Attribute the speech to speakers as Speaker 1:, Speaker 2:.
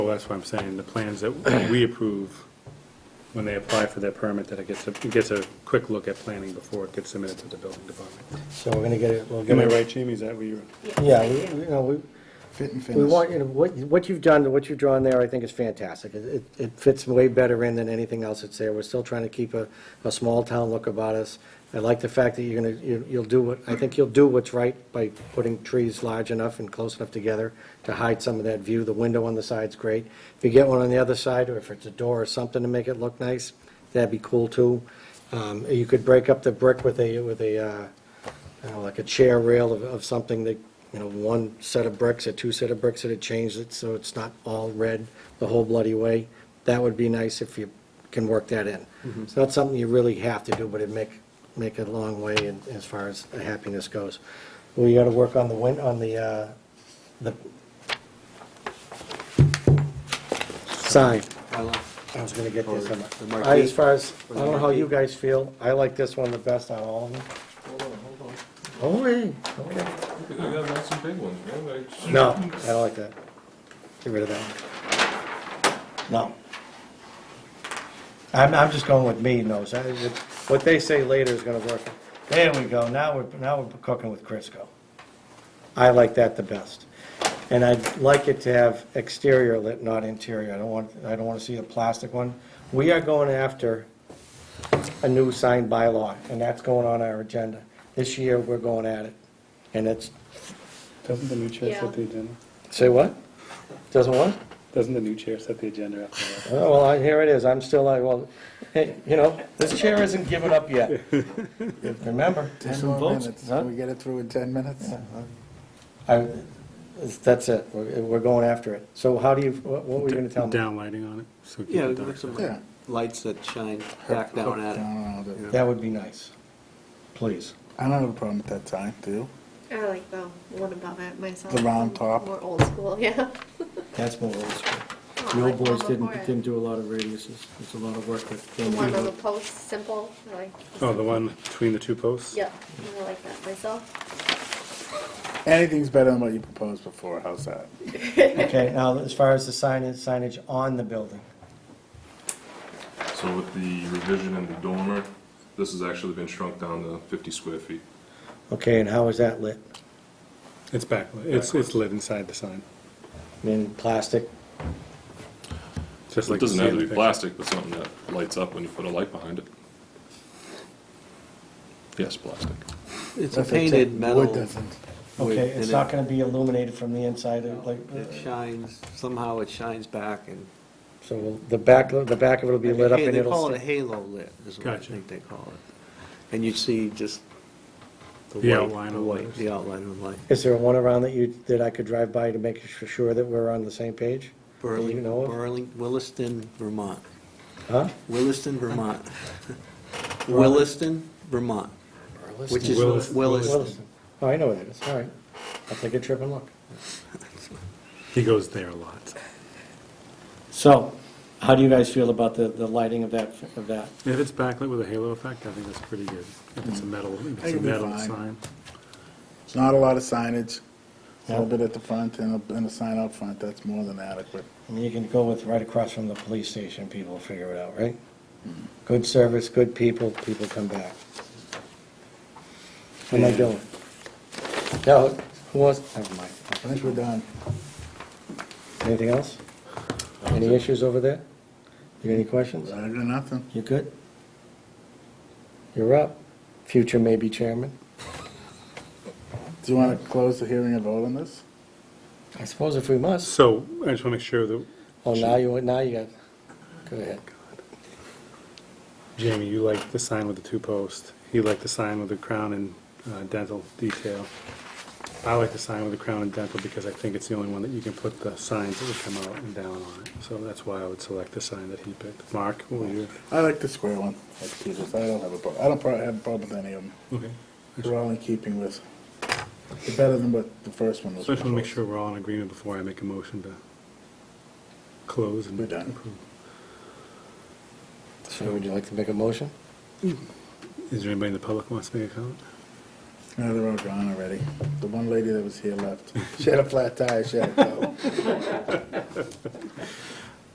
Speaker 1: Well, that's what I'm saying, the plans that we approve, when they apply for their permit, that it gets, a- it gets a quick look at planning before it gets submitted to the building department.
Speaker 2: So we're gonna get it, we'll get
Speaker 1: Am I
Speaker 2: it.
Speaker 1: right, Jamie, is that what you're?
Speaker 2: Yeah, we, we- you know, we,
Speaker 3: Fit and
Speaker 2: we
Speaker 3: finish.
Speaker 2: want, you know, what, what you've done, what you've drawn there, I think is fantastic. It, it- it fits way better in than anything else that's there. We're still trying to keep a, a small town look about us. I like the fact that you're gonna, you- you'll do what, I think you'll do what's right by putting trees large enough and close enough together to hide some of that view. The window on the side's great. If you get one on the other side, or if it's a door or something to make it look nice, that'd be cool too. Um, you could break up the brick with a, with a, uh, you know, like a chair rail of, of something that, you know, one set of bricks or two set of bricks that had changed it, so it's not all red the whole bloody way. That would be nice if you can work that in. It's not something you really have to do, but it'd make, make it a long way in, as far as the happiness goes. We gotta work on the win, on the, uh, the sign. I was gonna get this. on my- I, as far as, I don't know how you guys feel, I like this one the best out of all of them. Oh, hey, okay.
Speaker 4: We have lots of big ones, man, like.
Speaker 2: No, I don't like that. Get rid of that one. No. I'm, I'm just going with me, no, so I- it- what they say later is gonna work. There we go, now we're, now we're cooking with Crisco. I like that the best. And I'd like it to have exterior lit, not interior, I don't want, I don't wanna see a plastic one. We are going after a new sign bylaw, and that's going on our agenda. This year, we're going at it, and it's,
Speaker 1: Doesn't the new chair set the agenda?
Speaker 2: say what? Doesn't what?
Speaker 1: Doesn't the new chair set the agenda after that?
Speaker 2: Oh, Well, I- here it is, I'm still, I, well, hey, you know, this chair isn't giving up yet. Remember,
Speaker 3: Ten more
Speaker 4: votes,
Speaker 3: minutes.
Speaker 2: huh?
Speaker 3: Can we get it through in ten minutes?
Speaker 2: I, that's it, we're, we're going after it. So how do you, what what were you gonna tell me?
Speaker 1: Downlighting on it, so keep
Speaker 5: Yeah,
Speaker 1: it
Speaker 5: we've got
Speaker 1: dark.
Speaker 5: some
Speaker 3: Yeah.
Speaker 5: lights that shine back down
Speaker 3: I
Speaker 5: at it.
Speaker 3: don't know, that-
Speaker 2: That would be nice, please.
Speaker 3: I don't have a problem with that time, do you?
Speaker 6: I like the one above it myself.
Speaker 3: The round
Speaker 6: I'm
Speaker 3: top.
Speaker 6: More old school, yeah.
Speaker 2: That's more old school.
Speaker 6: I
Speaker 5: The
Speaker 6: like
Speaker 5: old boys
Speaker 6: one
Speaker 5: didn't,
Speaker 6: before it.
Speaker 5: didn't do a lot of radiuses, it's a lot of work that
Speaker 6: The
Speaker 5: they
Speaker 6: one on the
Speaker 5: do.
Speaker 6: post, simple, I like.
Speaker 1: Oh, the one between the two posts?
Speaker 6: Yep, I like that myself.
Speaker 3: Anything's better than what you proposed before, how's that?
Speaker 2: Okay, now, as far as the signage, signage on the building,
Speaker 4: So with the revision in the dormer, this has actually been shrunk down to fifty square feet.
Speaker 2: okay, and how is that lit?
Speaker 1: It's backlit, it's, it's lit inside the sign,
Speaker 2: In plastic?
Speaker 1: just like.
Speaker 4: It
Speaker 1: you
Speaker 4: doesn't
Speaker 1: see
Speaker 4: have
Speaker 1: in
Speaker 4: to
Speaker 1: the
Speaker 4: be
Speaker 1: picture.
Speaker 4: plastic, but something that lights up when you put a light behind it. Yes, plastic.
Speaker 5: It's
Speaker 3: That's a
Speaker 5: a
Speaker 3: tech-
Speaker 5: painted
Speaker 3: Wood
Speaker 5: metal,
Speaker 3: doesn't.
Speaker 5: Wait,
Speaker 2: Okay, it's
Speaker 5: and
Speaker 2: not
Speaker 5: it-
Speaker 2: gonna be illuminated from the inside, like, uh,
Speaker 5: it shines, somehow it shines back and.
Speaker 2: so will the back, the back of it'll be lit up and
Speaker 5: They
Speaker 2: it'll.
Speaker 5: call it a
Speaker 2: stay-
Speaker 5: halo lit, is what I
Speaker 1: Gotcha.
Speaker 5: think they call it. And you see just the
Speaker 1: The
Speaker 5: white-
Speaker 1: outline
Speaker 5: the
Speaker 1: of
Speaker 5: white-
Speaker 1: letters.
Speaker 5: The outline of the light.
Speaker 2: Is there one around that you, that I could drive by to make su- sure that we're on the same page? Do you
Speaker 5: Burling,
Speaker 2: know of?
Speaker 5: Burling, Williston, Vermont.
Speaker 2: Huh?
Speaker 5: Williston, Vermont. Williston, Vermont, which is
Speaker 1: Willis-
Speaker 5: Williston.
Speaker 2: Williston. Oh, I know where that is, all right. I'll take a trip and look.
Speaker 1: He goes there a lot.
Speaker 2: So, how do you guys feel about the, the lighting of that, of that?
Speaker 1: If it's backlit with a halo effect, I think that's pretty good. If it's a metal, if it's a
Speaker 3: It'll be
Speaker 1: metal
Speaker 3: fine.
Speaker 1: sign.
Speaker 3: It's not a lot of signage, a little
Speaker 2: Yeah.
Speaker 3: bit at the front and a, and a sign out front, that's more than adequate.
Speaker 2: I mean, you can go with right across from the police station, people will figure it out, right? Good service, good people, people come back. How am I doing? No, who wants, never mind.
Speaker 3: I think we're done.
Speaker 2: Anything else? Any issues over there? You got any questions?
Speaker 3: Better than nothing.
Speaker 2: You good? You're up. Future maybe chairman.
Speaker 3: Do you want to close the hearing and vote on this?
Speaker 2: I suppose if we must.
Speaker 1: So I just want to make sure that,
Speaker 2: Oh, now you, now you got, go ahead.
Speaker 1: Jamie, you like the sign with the two posts. He liked the sign with the crown and uh, dental detail. I like the sign with the crown and dental because I think it's the only one that you can put the signs that would come out and down on it. So that's why I would select the sign that he picked. Mark, will you?
Speaker 3: I like the square one, like Peter's, I don't have a problem, I don't prob- have a problem with any of them.
Speaker 1: Okay.
Speaker 3: They're all in keeping with, they're better than what the first one was.
Speaker 1: So I just want to make sure
Speaker 3: proposed.
Speaker 1: we're all in agreement before I make a motion to close and
Speaker 3: We're done.
Speaker 1: approve.
Speaker 2: So would you like to make a motion?
Speaker 1: Is there anybody in the public who wants to make a comment?
Speaker 3: No, they're all gone already. The one lady that was here left. She had a flat tire, she had to go.